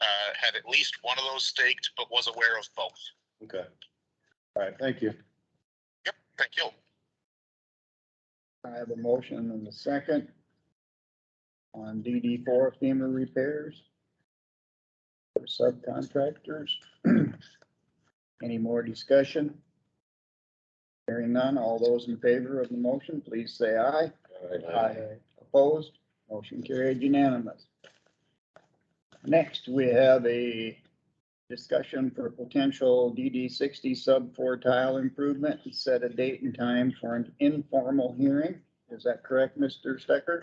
uh, had at least one of those staked, but was aware of both. Okay. All right, thank you. Thank you. I have a motion and a second on DD four FEMA repairs for subcontractors. Any more discussion? Hearing none, all those in favor of the motion, please say aye. Opposed, motion carried unanimous. Next, we have a discussion for potential DD sixty sub four tile improvement and set a date and time for an informal hearing. Is that correct, Mr. Stecker?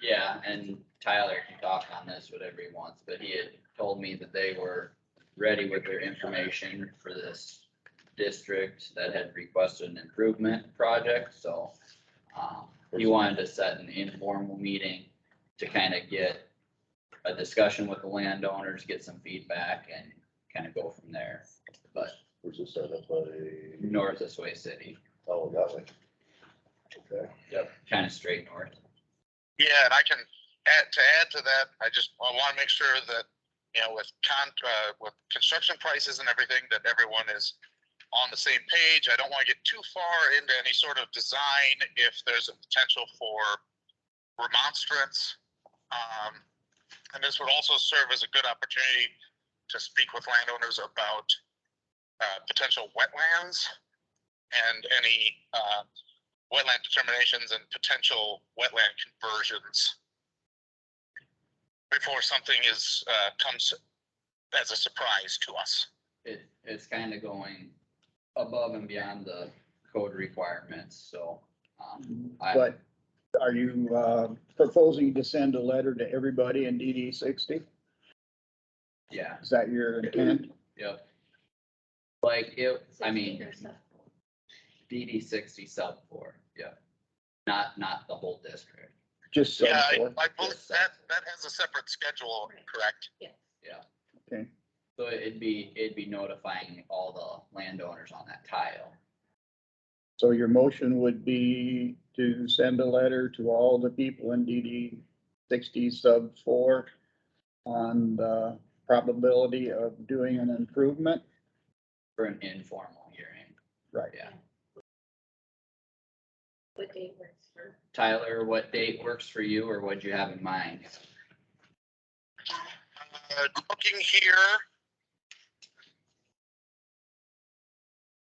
Yeah, and Tyler can talk on this, whatever he wants, but he had told me that they were ready with their information for this district that had requested an improvement project, so. Um, he wanted to set an informal meeting to kind of get a discussion with the landowners, get some feedback and kind of go from there. But Where's this set up by? north this way city, uh, Oh, that way. Okay. yep, kind of straight north. Yeah, and I can add, to add to that, I just, I wanna make sure that, you know, with con, uh, with construction prices and everything, that everyone is on the same page. I don't wanna get too far into any sort of design if there's a potential for remonstrance. Um, and this would also serve as a good opportunity to speak with landowners about, uh, potential wetlands and any, uh, wetland determinations and potential wetland conversions before something is, uh, comes as a surprise to us. it, it's kind of going above and beyond the code requirements, so. um, I- But are you uh, proposing to send a letter to everybody in DD sixty? Yeah, Is that your intent? yep. Like, it, I 16 mean, or so. DD sixty sub four, yeah, not, not the whole district, Just so Yeah, I, forth. I believe that, that has a separate schedule, correct? Yes. Okay, so it'd be, it'd be notifying all the landowners on that tile. so your motion would be to send a letter to all the people in DD sixty sub four on the probability of doing an improvement? For an informal hearing, Right. yeah, What day works for? Tyler, what date works for you, or what'd you have in mind? Uh, looking here.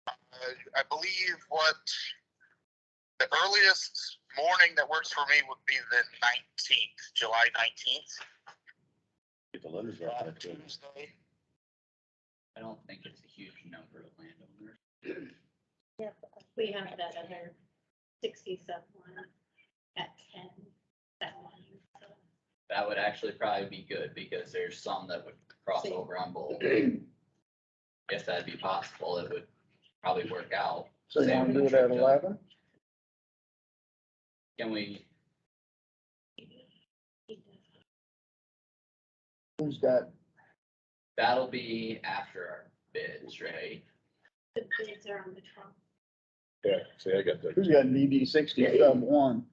Uh, I believe what the earliest morning that works for me would be the nineteenth, July nineteenth, Get the letters out. uh, there, too. Tuesday. I don't think it's a huge number of landowners. We have that other sixty sub one at ten, that one. so. That would actually probably be good because there's some that would cross Same. over on both. If that'd be possible, it would probably work out. So you want to do it at eleven? Can we, Who's got, that'll be after our bids, right? The bids are on the trunk. Yeah, see, I got that. who's got DD sixty sub one?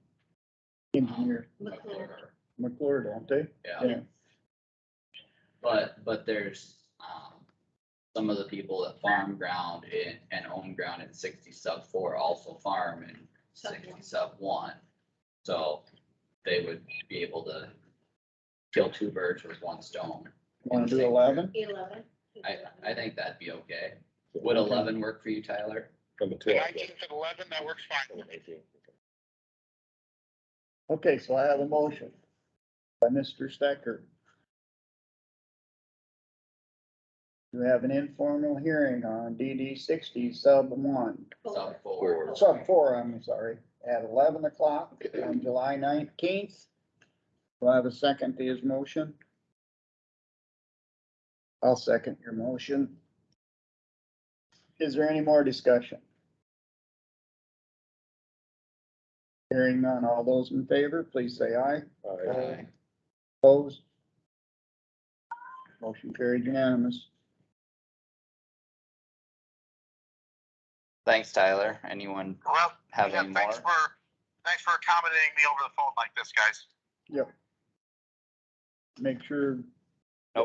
Engineer McClure. October. McClure, don't they? Yeah, Yeah. but, but there's, um, some of the people that farm ground in, and own ground in sixty sub four also farm in Sub sixty one. sub one. So they would be able to kill two birds with one stone. Want to do eleven? Eleven. I, I think that'd be okay. Would eleven work for you, Tyler? From the The twelve. nineteenth at eleven, that works fine. with me. Okay, so I have a motion by Mr. Stecker. To have an informal hearing on DD sixty sub one, Sub Four. four. sub four, I'm sorry, at eleven o'clock on July nineteenth. Do I have a second to his motion? I'll second your motion. Is there any more discussion? Hearing none, all those in favor, please say aye. All right. Aye. Opposed? Motion carried unanimous. Thanks, Tyler. Anyone Well, have yeah, any more? thanks for, thanks for accommodating me over the phone like this, guys. Make sure